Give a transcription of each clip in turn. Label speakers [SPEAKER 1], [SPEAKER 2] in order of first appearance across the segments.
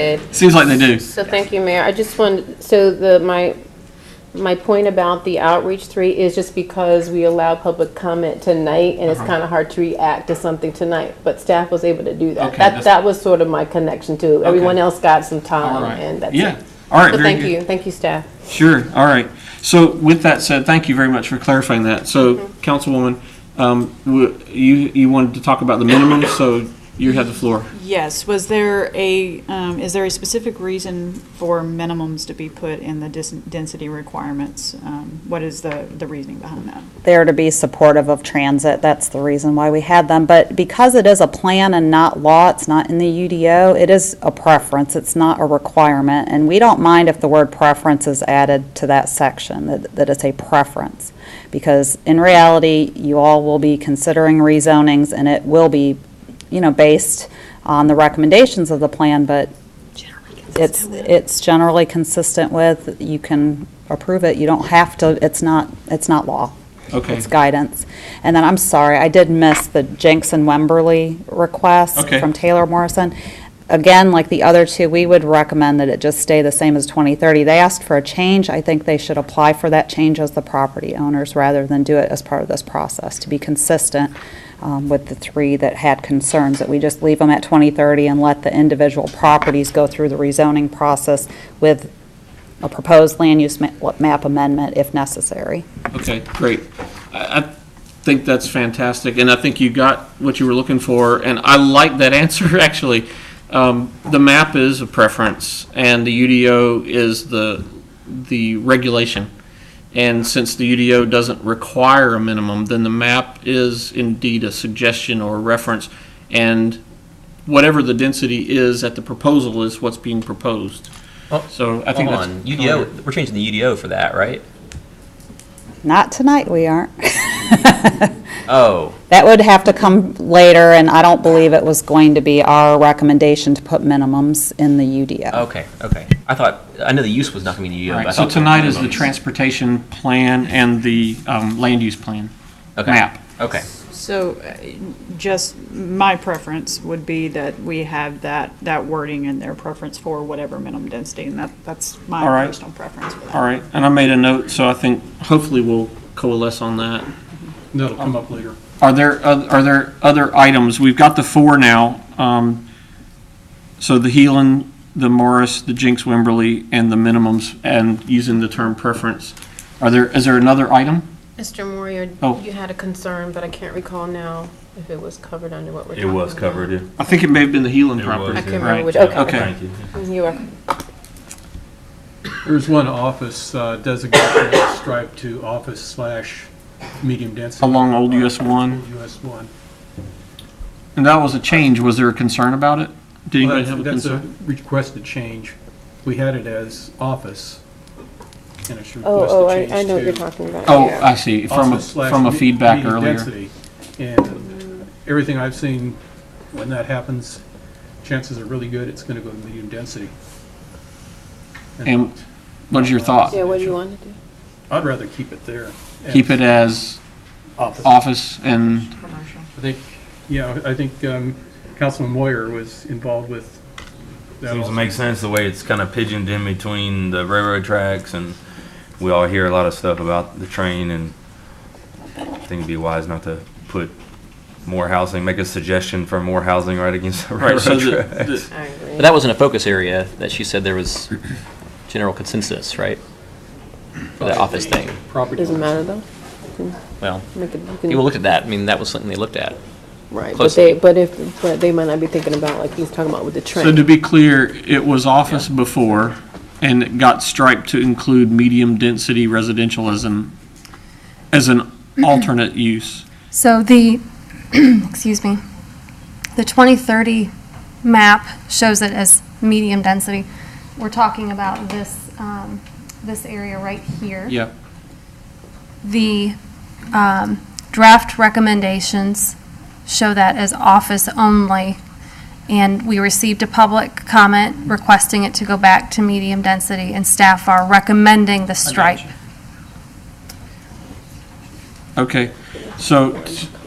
[SPEAKER 1] did.
[SPEAKER 2] Seems like they do.
[SPEAKER 1] So thank you, Mayor. I just wanted, so the, my, my point about the outreach three is just because we allow public comment tonight and
[SPEAKER 2] Uh-huh.
[SPEAKER 1] it's kind of hard to react to something tonight, but staff was able to do that.
[SPEAKER 2] Okay,
[SPEAKER 1] That,
[SPEAKER 2] that's-
[SPEAKER 1] that was sort of my connection to, it. everyone else got some
[SPEAKER 2] All
[SPEAKER 1] time
[SPEAKER 2] right.
[SPEAKER 1] and that's it.
[SPEAKER 2] Yeah, all right,
[SPEAKER 1] So
[SPEAKER 2] very
[SPEAKER 1] thank
[SPEAKER 2] good.
[SPEAKER 1] you, thank you, staff.
[SPEAKER 2] Sure, all right. So with that said, thank you very much for clarifying that. So, Councilwoman, um, w- you, you wanted to talk about the minimum, so you have the floor.
[SPEAKER 3] Yes, was there a, um, is there a specific reason for minimums to be put in the dis- density requirements? Um, What is the, the reasoning behind that?
[SPEAKER 4] there to be supportive of transit. That's the reason why we had them. But because it is a plan and not law, it's not in the UDO, it is a preference. It's not a requirement. And we don't mind if the word preference is added to that section, that, that it's a preference. Because in reality, you all will be considering rezonings and it will be, you know, based on the recommendations of the plan, but it's, it's generally consistent with, you can approve it, you don't have to, it's not, it's not law.
[SPEAKER 2] Okay.
[SPEAKER 4] It's guidance. And then, I'm sorry, I did miss the Jenks and Wemberly request
[SPEAKER 2] Okay.
[SPEAKER 4] from Taylor Morrison. Again, like the other two, we would recommend that it just stay the same as 2030. They asked for a change, I think they should apply for that change as the property owners rather than do it as part of this process, to be consistent um, with the three that had concerns, that we just leave them at 2030 and let the individual properties go through the rezoning process with a proposed land use ma- map amendment if necessary.
[SPEAKER 2] Okay, great. I, I think that's fantastic, and I think you got what you were looking for, and I like that answer, actually. Um, the map is a preference, and the UDO is the, the regulation. And since the UDO doesn't require a minimum, then the map is indeed a suggestion or a reference, and whatever the density is at the proposal is what's being proposed.
[SPEAKER 5] Oh,
[SPEAKER 2] So I think
[SPEAKER 5] Hold
[SPEAKER 2] that's.
[SPEAKER 5] on, UDO, we're changing the UDO for that, right?
[SPEAKER 4] Not tonight, we aren't.
[SPEAKER 5] Oh,
[SPEAKER 4] That would have to come later, and I don't believe it was going to be our recommendation to put minimums in the UDO.
[SPEAKER 5] okay, okay. I thought, I know the use was not going to be in the UDO. but I
[SPEAKER 2] Right, so
[SPEAKER 5] thought there
[SPEAKER 2] tonight
[SPEAKER 5] were
[SPEAKER 2] is the
[SPEAKER 5] minimums.
[SPEAKER 2] transportation plan and the um, land use plan
[SPEAKER 5] Okay,
[SPEAKER 2] map.
[SPEAKER 5] Okay,
[SPEAKER 3] So uh, just my preference would be that we have that, that wording in their preference for whatever minimum density, and that, that's my
[SPEAKER 2] All right.
[SPEAKER 3] personal preference for that.
[SPEAKER 2] All right, and I made a note, so I think hopefully we'll coalesce on that.
[SPEAKER 6] That'll come up later.
[SPEAKER 2] Are there, oth- are there other items? We've got the four now. um, So the Heelan, the Morris, the Jinx Wimberly, and the minimums, and using the term preference. Are there, is there another item?
[SPEAKER 1] Mr. Moyer,
[SPEAKER 2] Oh.
[SPEAKER 1] you had a concern, but I can't recall now if it was covered under what we're
[SPEAKER 7] It was covered, yeah.
[SPEAKER 2] I think it may have been the Heelan
[SPEAKER 7] It
[SPEAKER 2] property.
[SPEAKER 7] was,
[SPEAKER 1] I
[SPEAKER 7] yeah.
[SPEAKER 1] can't
[SPEAKER 2] Right.
[SPEAKER 1] remember which, okay.
[SPEAKER 2] Okay.
[SPEAKER 7] Thank you.
[SPEAKER 1] Mm, You are
[SPEAKER 6] There's one office uh, designated as stripe to office slash medium density.
[SPEAKER 2] Along Old US One.
[SPEAKER 6] US one.
[SPEAKER 2] And that was a change. Was there a concern about it? Did anybody
[SPEAKER 6] Well, that's-
[SPEAKER 2] have a
[SPEAKER 6] That's
[SPEAKER 2] concern?
[SPEAKER 6] a requested change. We had it as office, and it's requested change to.
[SPEAKER 1] Oh, oh, I, I know what you're talking about.
[SPEAKER 2] Oh,
[SPEAKER 1] yeah.
[SPEAKER 2] I see, from, a
[SPEAKER 6] office slash
[SPEAKER 2] from a
[SPEAKER 6] me-
[SPEAKER 2] feedback
[SPEAKER 6] medium
[SPEAKER 2] earlier.
[SPEAKER 6] density. And everything I've seen, when that happens, chances are really good it's going to go to medium density.
[SPEAKER 2] And what's your thought?
[SPEAKER 1] Yeah, what do you want to do?
[SPEAKER 6] I'd rather keep it there.
[SPEAKER 2] Keep it as
[SPEAKER 6] Office.
[SPEAKER 2] office and,
[SPEAKER 6] I think, yeah, I think um, Councilman Moyer was involved with that.
[SPEAKER 7] Seems
[SPEAKER 6] also.
[SPEAKER 7] to make sense the way it's kind of pigeoned in between the railroad tracks, and we all hear a lot of stuff about the train, and I think it'd be wise not to put more housing, make a suggestion for more housing right against the
[SPEAKER 2] right,
[SPEAKER 7] railroad
[SPEAKER 2] so the,
[SPEAKER 7] track.
[SPEAKER 2] the-
[SPEAKER 1] I agree.
[SPEAKER 5] but that wasn't a focus area, that she said there was general consensus, right? For the office thing.
[SPEAKER 6] Property
[SPEAKER 1] Doesn't
[SPEAKER 6] owners.
[SPEAKER 1] matter though.
[SPEAKER 5] Well,
[SPEAKER 1] Make it- you can-
[SPEAKER 5] people looked at that, I mean, that was something they looked at.
[SPEAKER 1] Right, but
[SPEAKER 5] closely.
[SPEAKER 1] they, but if, but they might not be thinking about, like he's talking about with the
[SPEAKER 2] so to
[SPEAKER 1] train.
[SPEAKER 2] be clear, it was office before and it got striped to include medium density residential as an, as an alternate use.
[SPEAKER 8] So the, excuse me, the 2030 map shows it as medium density. We're talking about this, um, this area right here.
[SPEAKER 2] Yeah,
[SPEAKER 8] The um, draft recommendations show that as office only, and we received a public comment requesting it to go back to medium density, and staff are recommending the strike.
[SPEAKER 2] okay. So,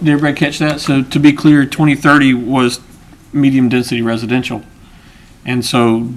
[SPEAKER 2] did everybody catch that? So to be clear, 2030 was medium density residential. And so